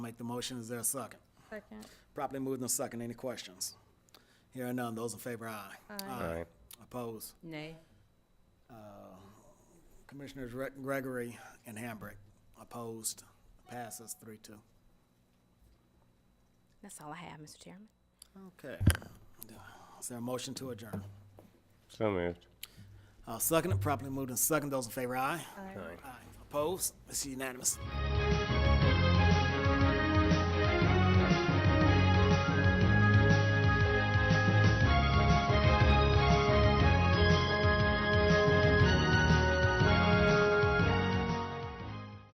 make the motion. Is there a second? Second. Properly moved and second. Any questions? Hearing none. Those in favor, aye. Aye. Opposed? Uh, Nay. Commissioners Gre- Gregory and Hambrick, opposed. Passes three two. That's all I have, Mr. Chairman. Okay. Is there a motion to adjourn? So moved. Uh, second, properly moved and second. Those in favor, aye. Aye. Opposed? It's unanimous.